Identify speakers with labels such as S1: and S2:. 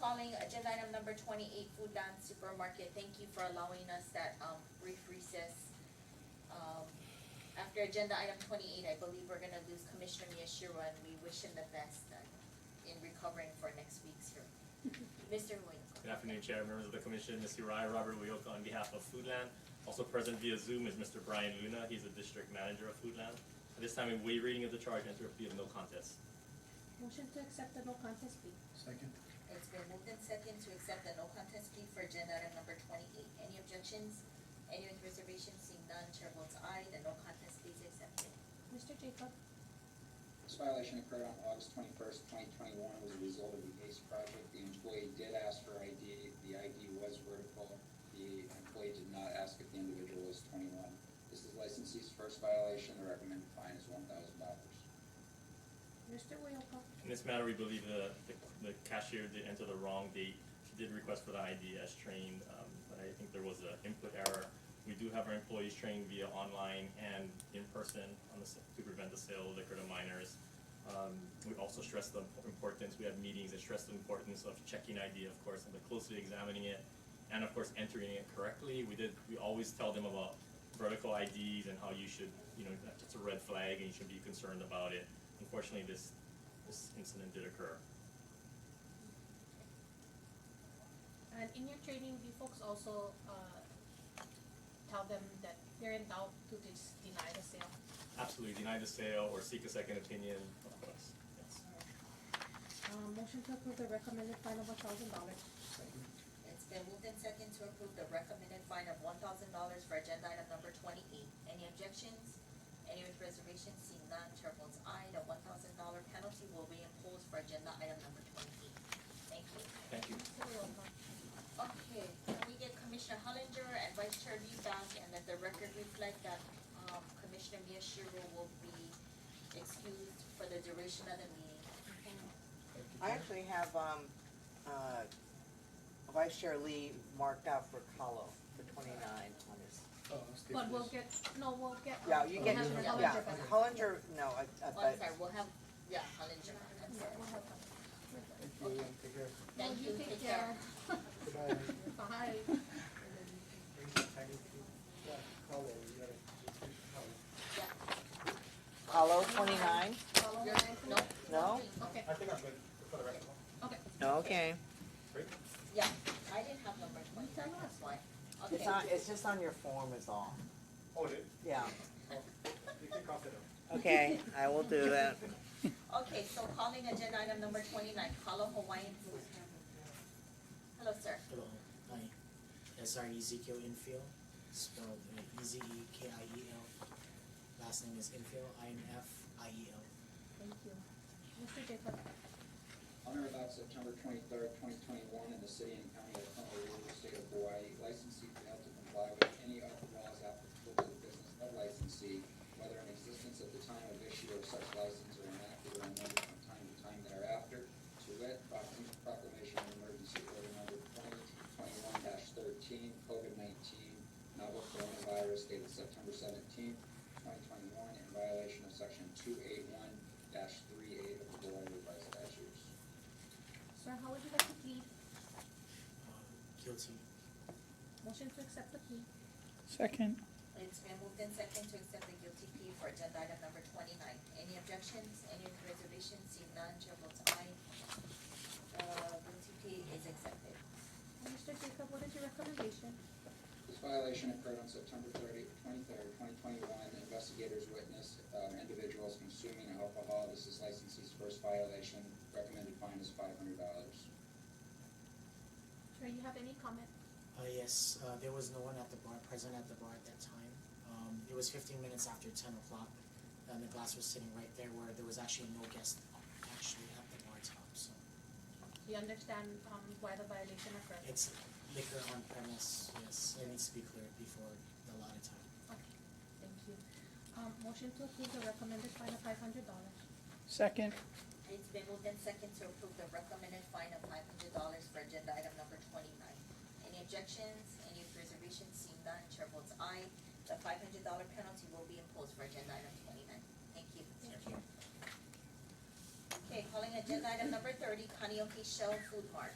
S1: calling agenda item number twenty-eight, Fudan Supermarket. Thank you for allowing us that, um, brief recess. Um, after agenda item twenty-eight, I believe we're gonna lose Commissioner Miyashiro and we wish him the best uh, in recovering for next week's hearing. Mr. Moinkle.
S2: Good afternoon, Chair, members of the commission, Ms. Uriah Robert Wioka on behalf of Foodland. Also present via Zoom is Mr. Brian Luna, he's the district manager of Foodland. At this time, we waive reading of the charge and there will be of no contest.
S3: Motion to accept the no contest plea.
S4: Second.
S1: It's been moved and second to accept the no contest plea for agenda item number twenty-eight. Any objections? Any with reservations? Seeing none, chair votes aye, the no contest plea is accepted.
S3: Mr. Jacob,
S5: This violation occurred on August twenty-first, twenty twenty-one, as a result of the ACE project. The employee did ask for ID, the ID was vertical. The employee did not ask if the individual was twenty-one. This is licensee's first violation, the recommended fine is one thousand dollars.
S3: Mr. Uyoka,
S2: In this matter, we believe the, the cashier did enter the wrong date. She did request for the ID as trained, um, but I think there was an input error. We do have our employees trained via online and in person on the, s- to prevent the sale of liquor to minors. Um, we also stress the importance, we have meetings that stress the importance of checking ID, of course, and but closely examining it. And of course, entering it correctly. We did, we always tell them about vertical IDs and how you should, you know, it's a red flag and you should be concerned about it. Unfortunately, this this incident did occur.
S3: and in your training, do you folks also, uh, tell them that they're in doubt to just deny the sale?
S2: Absolutely deny the sale or seek a second opinion, of course, yes.
S3: Uh, motion to approve the recommended fine of a thousand dollars.
S4: Second.
S1: It's been moved and second to approve the recommended fine of one thousand dollars for agenda item number twenty-eight. Any objections? Any with reservations? Seeing none, chair votes aye, the one thousand dollar penalty will be imposed for agenda item number twenty-eight. Thank you.
S2: Thank you.
S3: Mr. Uyoka,
S1: Okay, can we get Commissioner Hollinger and Vice Chair Lee back and let the record reflect that, um, Commissioner Miyashiro will be excused for the duration of the meeting.
S6: I actually have, um, uh, Vice Chair Lee marked out for Kahlo for twenty-nine on his.
S4: Oh, let's skip
S3: But we'll
S4: this.
S3: get, no, we'll get. uh,
S6: Yeah, you
S3: we'll
S6: get,
S3: have the
S1: yeah.
S6: yeah,
S3: Hollinger back.
S6: Hollinger, no, I, I,
S1: Oh, I'm
S6: but,
S1: sorry, we'll have, yeah, Hollinger, I'm
S3: Yeah,
S1: sorry.
S3: we'll have
S4: Thank you, William. Take care.
S3: that.
S1: Thank you, take care.
S4: Goodbye.
S3: Bye.
S4: Thank you, thank you. Yeah, hello, you gotta, hello.
S6: Kahlo, twenty-nine?
S3: Follow
S1: You're,
S3: my-
S1: no?
S6: No?
S3: Okay,
S2: I think I'm good for the record.
S3: okay.
S6: Okay.
S1: Yeah, I didn't have number twenty, that's why. Okay,
S6: It's not, it's just on your form is all.
S2: Oh, did,
S6: Yeah,
S2: you can cross it out.
S6: okay, I will do that.
S1: okay, so calling agenda item number twenty-nine, Kalo Hawaiian Food. Hello, sir.
S7: Hello, hi. That's our Ezekiel Infield, spelled E Z E K I E L. Last name is Infield, I N F I E L.
S3: Thank you. Mr. Jacob,
S5: On or about September twenty-third, twenty twenty-one, in the city and county of Honolulu, state of Hawaii, licensee failed to comply with any of the laws applicable to the business of licensee, whether in existence at the time of issue of such license or enacted or amended from time to time thereafter, to wit, proclam- proclamation of emergency order number twenty twenty-one thirteen, COVID nineteen, novel coronavirus dated September seventeenth, twenty twenty-one, in violation of section two eight one three eight of the Hawaii revised statutes.
S3: sir, how would you like to plead?
S7: Uh, Guilty.
S3: Motion to accept the plea.
S8: Second,
S1: It's been moved in second to accept the guilty plea for agenda item number twenty-nine. Any objections, any reservations, seeing none, chair votes aye. The guilty plea is accepted.
S3: Mr. Jacob, what is your recommendation?
S5: This violation occurred on September 30, 23rd, 2021. Investigators witnessed um, individuals consuming alcohol. This is licensee's first violation. Recommended fine is $500.
S3: Sir, you have any comment?
S7: Uh, yes, uh, there was no one at the bar, present at the bar at that time. Um, it was fifteen minutes after ten o'clock, and the glass was sitting right there where there was actually no guest actually at the bar top, so.
S3: Do you understand, um, why the violation occurred?
S7: It's liquor on premise, yes, it needs to be cleared before the allotted time.
S3: Okay, thank you. Um, motion to approve the recommended fine of five hundred dollars.
S8: second,
S1: It's been moved in second to approve the recommended fine of five hundred dollars for agenda item number twenty-nine. Any objections, any reservations, seeing none, chair votes aye. The five hundred dollar penalty will be imposed for agenda item twenty-nine. Thank you.
S3: Thank you.
S1: Okay, calling agenda item number thirty, Kaneohe Shell Food Mart.